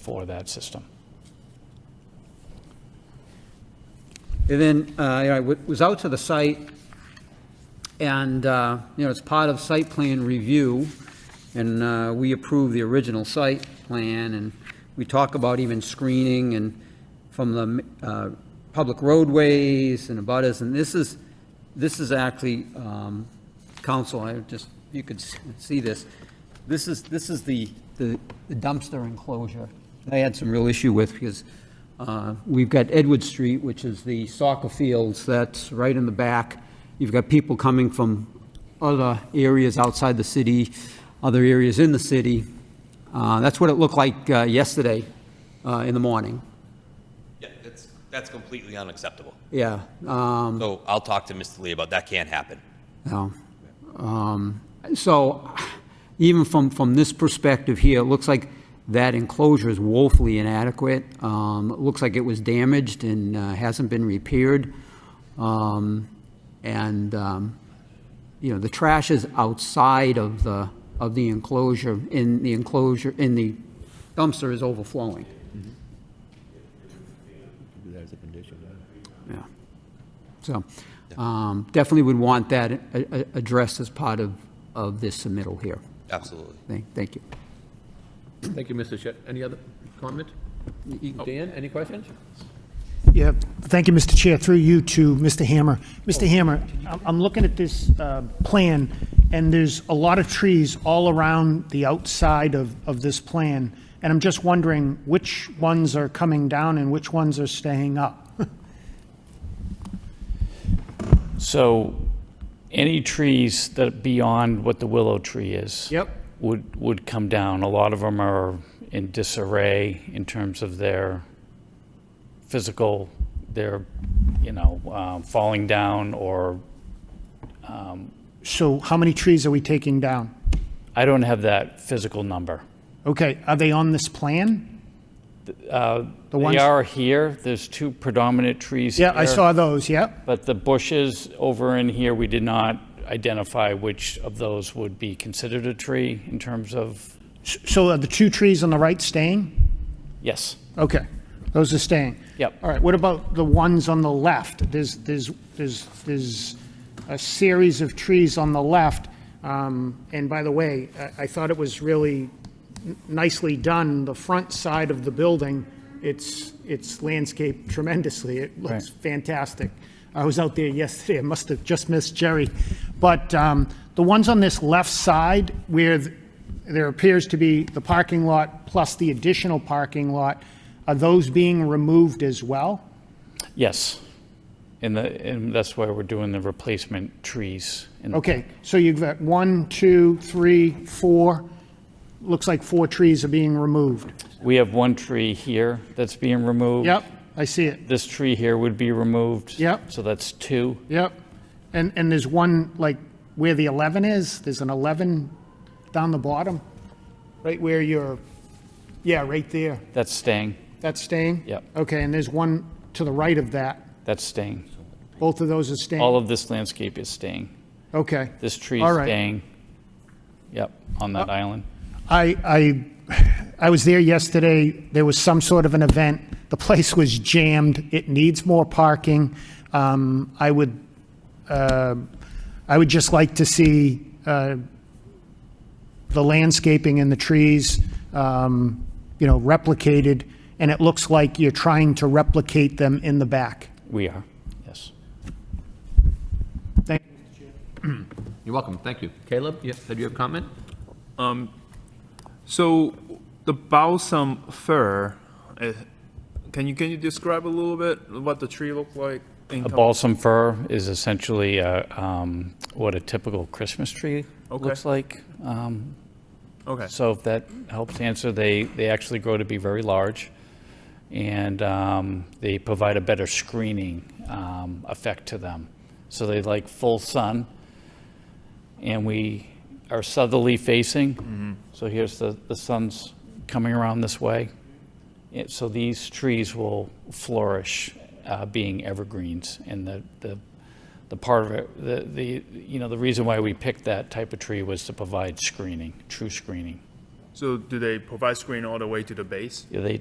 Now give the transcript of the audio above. for that system. And then, uh, you know, I wa- was out to the site, and, uh, you know, it's part of site plan review, and uh, we approve the original site plan, and we talk about even screening and from the uh, public roadways and abutters, and this is, this is actually, um, council, I just, you could s- see this, this is, this is the the dumpster enclosure. I had some real issue with, because uh, We've got Edward Street, which is the soccer fields, that's right in the back. You've got people coming from other areas outside the city, other areas in the city. Uh, That's what it looked like uh, yesterday uh, in the morning. Yeah, that's, that's completely unacceptable. Yeah. um, So I'll talk to Mr. Lee about, that can't happen. No. Um, So even from, from this perspective here, it looks like that enclosure is woefully inadequate. Um, It looks like it was damaged and uh, hasn't been repaired. Um, And, um, you know, the trash is outside of the, of the enclosure, in the enclosure, in the dumpster is overflowing. Do that as Mm-hmm. a condition, Yeah. So um, definitely would want that a- a- addressed as part of, of this submittal here. Absolutely. Thank, thank you. Thank you, Mr. Shet. Any other comment? Dan, any questions? Yeah, thank you, Mr. Chair, through you to Mr. Hammer. Mr. Oh. Hammer, I'm- I'm looking at this uh, plan, and there's a lot of trees all around the outside of, of this plan, and I'm just wondering which ones are coming down and which ones are staying up? So any trees that are beyond what the willow tree is. Yep. Would, would come down. A lot of them are in disarray in terms of their physical, their, you know, um, falling down or, So how many trees are we taking down? I don't have that physical number. Okay, are they on this plan? The uh, They ones- are here. There's two predominant trees Yeah, here, I saw those, yeah. But the bushes over in here, we did not identify which of those would be considered a tree in terms of, S- So are the two trees on the right staying? yes. Okay, those are staying. Yep. All right, what about the ones on the left? There's, there's, there's, there's a series of trees on the left. Um, And by the way, I, I thought it was really n- nicely done, the front side of the building, it's, it's landscaped tremendously. It looks fantastic. I was out there yesterday, I must have just missed Jerry. But um, the ones on this left side where th- there appears to be the parking lot plus the additional parking lot, are those being removed as well? Yes. And the, and that's why we're doing the replacement trees. in the- Okay, so you've got one, two, three, four, looks like four trees are being removed. We have one tree here that's being removed. Yep, I see it, This tree here would be removed. Yep. So that's two. yep. And, and there's one, like, where the 11 is, there's an 11 down the bottom, right where you're, yeah, right there, That's staying. that's staying? Yep. Okay, and there's one to the right of that, That's staying. both of those are staying? All of this landscape is staying. Okay. This tree All is right. Uh, staying. Yep, on that island. I, I, I was there yesterday, there was some sort of an event, the place was jammed, it needs more parking. Um, I would, uh, I would just like to see, uh, the landscaping and the trees, um, you know, replicated, and it looks like you're trying to replicate them in the back. We are, yes. Thank You're welcome, thank you. Caleb, yeah, did you have a comment? So the balsam fir, eh, can you, can you describe a little bit what the tree looked like? in A com- balsam fir is essentially uh, um, what a typical Christmas tree Okay. looks like. Um, Okay, So if that helps answer, they, they actually grow to be very large, and um, they provide a better screening um, effect to them. So they like full sun, and we are southerly facing. So here's the, the sun's coming around this way. It- So these trees will flourish, uh, being evergreens, and the, the, the part of it, the, the, you know, the reason why we picked that type of tree was to provide screening, true screening. So do they provide screen all the way to the base? They